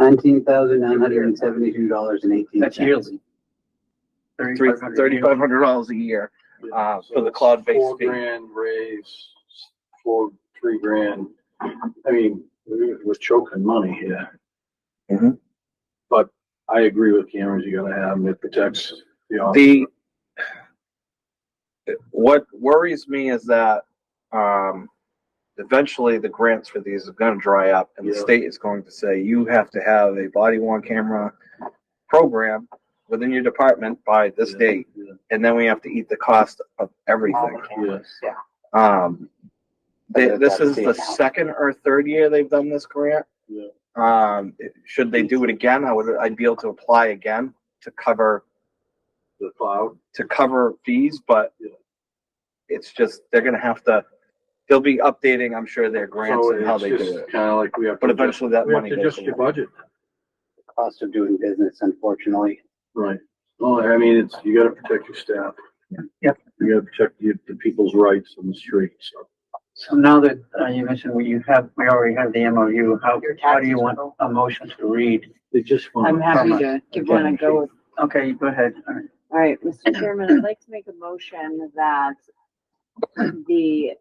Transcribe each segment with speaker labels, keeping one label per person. Speaker 1: nineteen thousand nine hundred and seventy-two dollars and eighteen cents.
Speaker 2: That's yearly.
Speaker 3: Three,
Speaker 2: Thirty-five hundred.
Speaker 3: thirty-five hundred dollars a year, uh,
Speaker 4: So
Speaker 3: for the
Speaker 4: it's
Speaker 3: cloud-based
Speaker 4: Four
Speaker 3: fee.
Speaker 4: grand raise, four, three grand. I mean, we're we're choking money here.
Speaker 3: Mhm.
Speaker 4: But I agree with cameras, you gotta have them, it protects the officer.
Speaker 3: The, what worries me is that, um, eventually the grants for these are gonna dry up and the
Speaker 4: Yeah.
Speaker 3: state is going to say, you have to have a body worn camera program within your department by this
Speaker 4: Yeah,
Speaker 3: date,
Speaker 4: yeah,
Speaker 3: and then we have to eat the cost of everything.
Speaker 4: Yes.
Speaker 3: Um, they,
Speaker 1: But
Speaker 3: this
Speaker 1: that's
Speaker 3: is
Speaker 1: the
Speaker 3: the
Speaker 1: amount.
Speaker 3: second or third year they've done this grant.
Speaker 4: Yeah.
Speaker 3: Um, it- should they do it again, I would, I'd be able to apply again to cover,
Speaker 4: The cloud,
Speaker 3: to cover fees, but
Speaker 4: Yeah.
Speaker 3: it's just, they're gonna have to, they'll be updating, I'm sure, their grants
Speaker 4: so
Speaker 3: and how
Speaker 4: it's
Speaker 3: they do
Speaker 4: just
Speaker 3: it.
Speaker 4: kinda like we have.
Speaker 3: But
Speaker 4: to adjust-
Speaker 3: eventually that
Speaker 4: We have
Speaker 3: money
Speaker 4: to
Speaker 3: goes
Speaker 4: adjust your
Speaker 3: away.
Speaker 4: budget,
Speaker 1: Cost of doing business, unfortunately.
Speaker 4: right. Well, I mean, it's, you gotta protect your staff.
Speaker 2: Yep.
Speaker 4: You gotta protect the, the people's rights on the street, so.
Speaker 2: So now that uh, you mentioned we you have, we already have the MOU, how,
Speaker 5: Your
Speaker 2: how do you
Speaker 5: taxes
Speaker 2: want
Speaker 5: will-
Speaker 2: a motion to read?
Speaker 4: They just
Speaker 5: I'm
Speaker 4: want,
Speaker 5: happy to give one a go.
Speaker 2: Okay, go ahead. All right.
Speaker 5: All right, Mr. Chairman, I'd like to make a motion that the,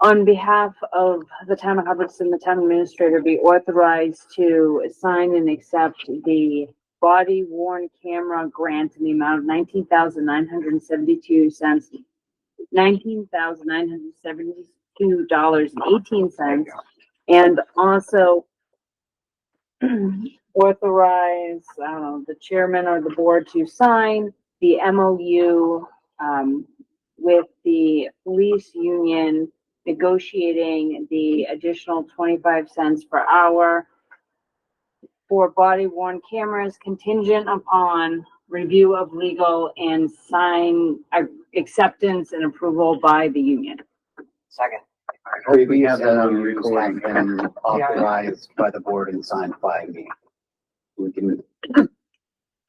Speaker 5: on behalf of the town of Hubbardston, the town administrator be authorized to sign and accept the body worn camera grant in the amount of nineteen thousand nine hundred and seventy-two cents, nineteen thousand nine hundred seventy-two dollars and eighteen cents, and also authorize, I don't know, the chairman or the board to sign the MOU um, with the police union negotiating the additional twenty-five cents per hour for body worn cameras contingent upon review of legal and sign uh, acceptance and approval by the union.
Speaker 6: Second.
Speaker 2: We have
Speaker 1: Previous
Speaker 2: that on
Speaker 1: MOUs have been uh, authorized by the board and signed by me. We can,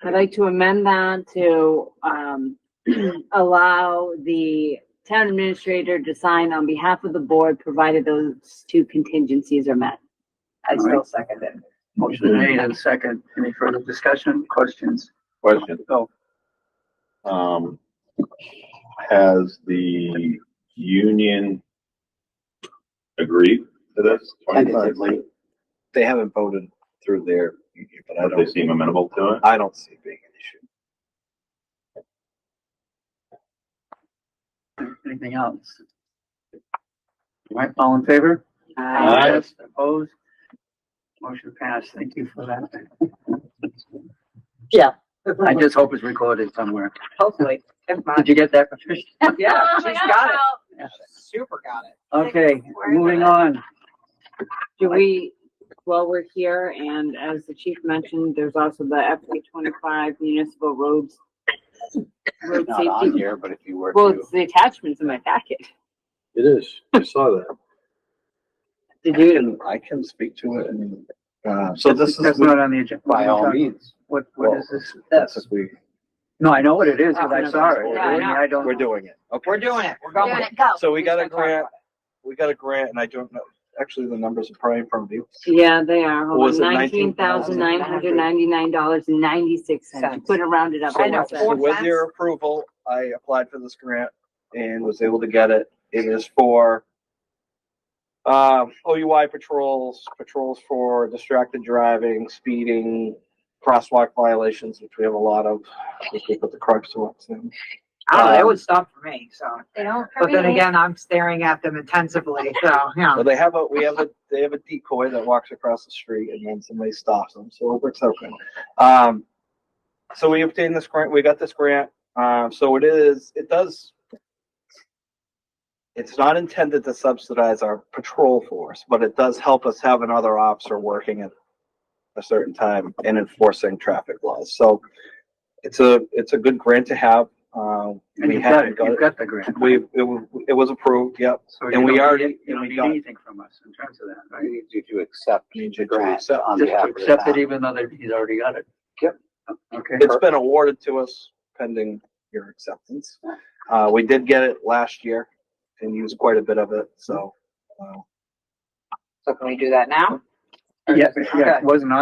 Speaker 5: I'd like to amend that to, um, allow the town administrator to sign on behalf of the board, provided those two contingencies are met.
Speaker 6: I still second it.
Speaker 2: Motion made and second. Any further discussion, questions?
Speaker 7: Question,
Speaker 2: Go.
Speaker 7: um, has the union agreed to this?
Speaker 1: tentatively,
Speaker 3: They haven't voted through their, but I
Speaker 7: Have they
Speaker 3: don't,
Speaker 7: seem amenable to it?
Speaker 3: I don't see it being an issue.
Speaker 2: Anything else? All right, all in favor?
Speaker 5: Uh,
Speaker 2: Yes, Opposed? Motion passed. Thank you for that.
Speaker 6: Yeah.
Speaker 2: I just hope it's recorded somewhere.
Speaker 6: Hopefully, if not,
Speaker 2: Did you get that, Patricia?
Speaker 6: yeah, she's got it.
Speaker 2: Yeah.
Speaker 6: Super got it.
Speaker 2: Okay, moving on.
Speaker 5: Do we, while we're here, and as the chief mentioned, there's also the FY twenty-five municipal roads. Road
Speaker 1: not on
Speaker 5: safety,
Speaker 1: here, but if you were
Speaker 5: well,
Speaker 1: to,
Speaker 5: it's the attachments in my packet.
Speaker 4: it is, I saw that.
Speaker 5: Did you,
Speaker 3: I can speak to it and, uh, so
Speaker 2: So
Speaker 3: this is,
Speaker 2: That's not on the agenda.
Speaker 1: by all means,
Speaker 2: What, what is this?
Speaker 3: this is, we,
Speaker 2: No, I know what it is, because
Speaker 6: Oh,
Speaker 2: I saw it.
Speaker 5: Yeah, I know.
Speaker 2: I don't.
Speaker 3: we're doing it. Okay.
Speaker 6: We're doing it. We're going.
Speaker 3: So we got a
Speaker 6: Let's Oh, talk about
Speaker 3: grant, we got a grant, and I don't know, actually, the numbers are probably from you.
Speaker 5: yeah, they are,
Speaker 3: What
Speaker 5: hold
Speaker 3: was
Speaker 5: on,
Speaker 3: it,
Speaker 5: nineteen thousand nine hundred ninety-nine dollars and ninety-six cents, you
Speaker 6: Cents.
Speaker 5: couldn't round it up.
Speaker 6: I know.
Speaker 5: one cent.
Speaker 3: So with your approval, I applied for this grant and was able to get it. It is for um, OUI patrols, patrols for distracted driving, speeding, crosswalk violations, which we have a lot of. which We put the crux to what's in.
Speaker 6: I don't know,
Speaker 3: Um,
Speaker 6: that Oh, would stop for me, so.
Speaker 8: They don't.
Speaker 6: But then again, I'm staring at them intensively, so, yeah.
Speaker 3: So they have a, we have a, they have a decoy that walks across the street and then somebody stops them, so it works out good. Um, so we obtained this grant, we got this grant, um, so it is, it does. It's not intended to subsidize our patrol force, but it does help us have another officer working at a certain time and enforcing traffic laws, so. It's a, it's a good grant to have, um.
Speaker 2: And
Speaker 3: we
Speaker 2: you've got it,
Speaker 3: haven't
Speaker 2: you've
Speaker 3: it.
Speaker 2: got the grant.
Speaker 3: We, it, wa- it was approved, yep,
Speaker 2: So
Speaker 3: and
Speaker 2: you
Speaker 3: we
Speaker 2: don't
Speaker 3: already-
Speaker 2: need- You
Speaker 3: and
Speaker 2: don't
Speaker 3: we
Speaker 2: need
Speaker 3: got-
Speaker 2: anything from us in terms of that,
Speaker 1: I
Speaker 2: right?
Speaker 1: need you to accept
Speaker 3: Need
Speaker 1: the
Speaker 3: you to
Speaker 1: grant
Speaker 3: accept-
Speaker 1: on
Speaker 2: Just
Speaker 1: behalf
Speaker 2: to
Speaker 1: of the
Speaker 2: accept it
Speaker 1: town.
Speaker 2: even though that he's already got it.
Speaker 1: Yep.
Speaker 2: Okay.
Speaker 3: It's been awarded to us pending your acceptance. Uh, we did get it last year and used quite a bit of it, so. uh,
Speaker 6: So can we do that now?
Speaker 2: Yeah, yeah, it wasn't on